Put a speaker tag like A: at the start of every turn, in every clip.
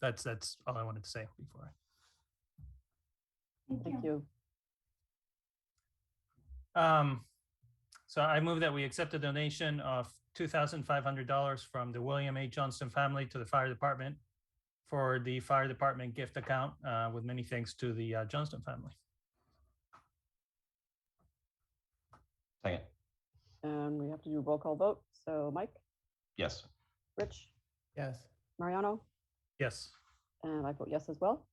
A: That's, that's all I wanted to say before.
B: Thank you.
A: Um, so I move that we accept a donation of two thousand five hundred dollars from the William A. Johnston family to the fire department for the fire department gift account, uh, with many thanks to the uh, Johnston family.
C: Second,
B: And we have to do a roll call vote. So Mike,
C: yes.
B: Rich,
D: yes,
B: Mariano,
A: Yes.
B: and I vote yes as well.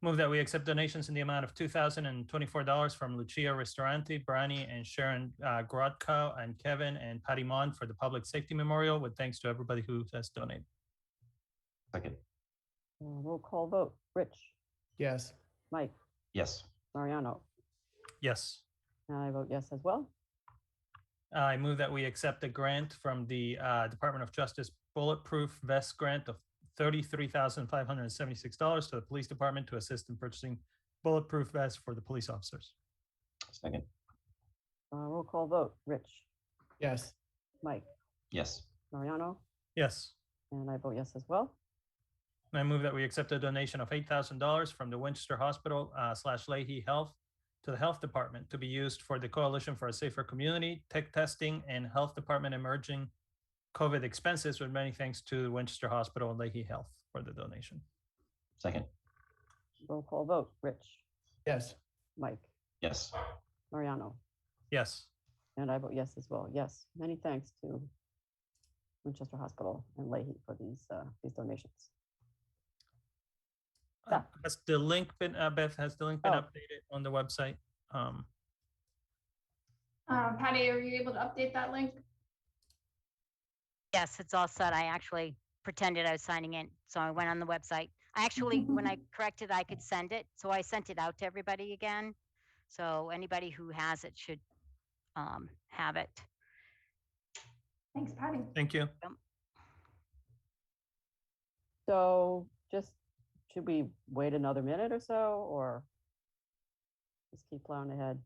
A: Move that we accept donations in the amount of two thousand and twenty-four dollars from Lucia Ristorante, Brani and Sharon uh, Grodko, and Kevin and Patty Mon for the Public Safety Memorial, with thanks to everybody who has donated.
C: Second,
B: And Uh, Roll call vote. Rich,
D: yes,
B: Mike,
C: yes.
B: Mariano,
A: Yes.
B: and I vote yes as well.
A: I move that we accept a grant from the uh, Department of Justice Bulletproof Vest Grant of thirty-three thousand five hundred and seventy-six dollars to the Police Department to assist in purchasing bulletproof vests for the police officers.
C: Second,
B: Uh, Roll call vote. Rich,
D: yes,
B: Mike,
C: yes.
B: Mariano,
A: Yes.
B: and I vote yes as well.
A: And I move that we accept a donation of eight thousand dollars from the Winchester Hospital uh, slash Leahy Health to the Health Department to be used for the Coalition for a Safer Community, tech testing, and Health Department emerging COVID expenses. With many thanks to Winchester Hospital and Leahy Health for the donation.
C: Second,
B: Roll call vote. Rich,
D: yes,
B: Mike,
C: yes.
B: Mariano,
A: Yes.
B: and I vote yes as well. Yes, many thanks to Winchester Hospital and Leahy for these, uh, these donations.
A: Uh,
B: Yeah.
A: Has the link been, uh, Beth, has the link been
B: Oh.
A: updated on the website? Um,
E: Um, Patty, are you able to update that link?
F: Yes, it's all set. I actually pretended I was signing in, so I went on the website. I actually, when I corrected, I could send it, so I sent it out to everybody again. So anybody who has it should um, have it.
E: Thanks, Patty.
A: thank you.
B: So just, should we wait another minute or so, or just keep plowing ahead?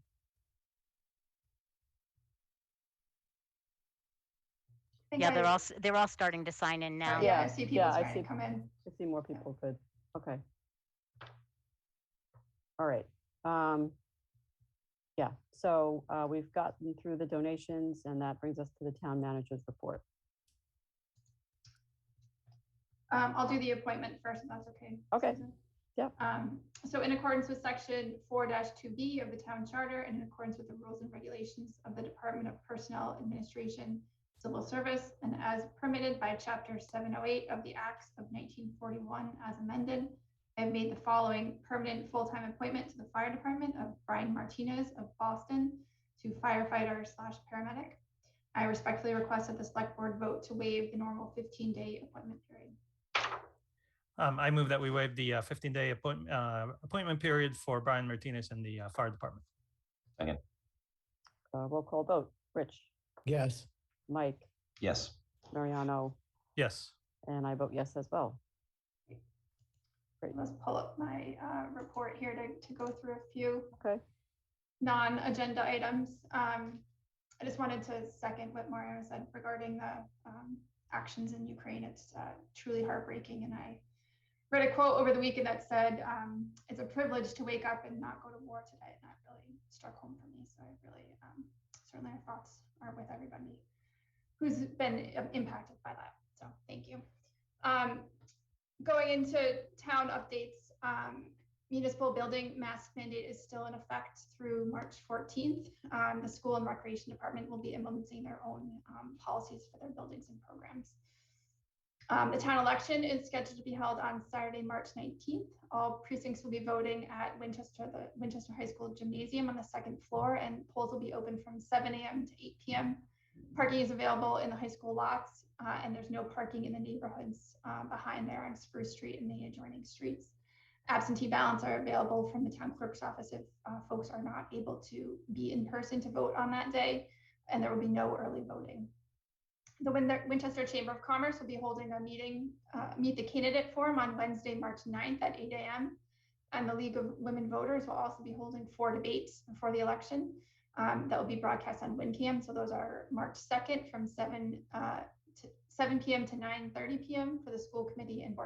E: I think
F: Yeah,
E: I-
F: they're all, s- they're all starting to sign in now.
E: Yeah,
B: Yeah,
E: I see people
B: yeah, I
E: starting
B: see-
E: to come in.
B: To see more people could, okay. All right. um, Yeah, so uh, we've gotten through the donations, and that brings us to the town manager's report.
E: Um, I'll do the appointment first, if that's okay.
B: Okay.
E: Susan.
B: Yep.
E: Um, so in accordance with section four two B of the town charter and in accordance with the rules and regulations of the Department of Personnel Administration, Civil Service, and as permitted by chapter seven oh eight of the Acts of nineteen forty-one as amended, I have made the following permanent full-time appointment to the fire department of Brian Martinez of Boston to firefighter slash paramedic. I respectfully request that the select board vote to waive the normal fifteen-day appointment period.
A: Um, I move that we waive the uh, fifteen day appointment, uh, appointment period for Brian Martinez and the uh, fire department.
B: Uh, Roll call vote. Rich,
D: yes,
B: Mike,
C: Yes.
B: Mariano,
A: Yes.
B: and I vote yes as well.
E: Let's pull up my uh, report here to, to go through a few
B: Okay.
E: non-agenda items. Um, I just wanted to second what Mario said regarding the um, actions in Ukraine. It's uh, truly heartbreaking. And I read a quote over the weekend that said, um, it's a privilege to wake up and not go to war today. And that really struck home for me. So I really, um, certainly our thoughts are with everybody who's been um, impacted by that. So thank you. Um, going into town updates, um, municipal building mask mandate is still in effect through March fourteenth. Um, the school and recreation department will be implementing their own, um, policies for their buildings and programs. Um, the town election is scheduled to be held on Saturday, March nineteenth. All precincts will be voting at Winchester, the Winchester High School Gymnasium on the second floor, and polls will be open from seven AM to eight PM. Parking is available in the high school lots, uh, and there's no parking in the neighborhoods, uh, behind there on Spruce Street and the adjoining streets. Absentee ballots are available from the town clerk's office if, uh, folks are not able to be in person to vote on that day, and there will be no early voting. The Win- Winchester Chamber of Commerce will be holding a meeting, uh, meet the candidate forum on Wednesday, March 9th at eight AM. And the League of Women Voters will also be holding four debates before the election. Um, that will be broadcast on WinCam. So those are March 2nd from 7, uh, to 7 p.m. to 9:30 p.m. for the school committee and board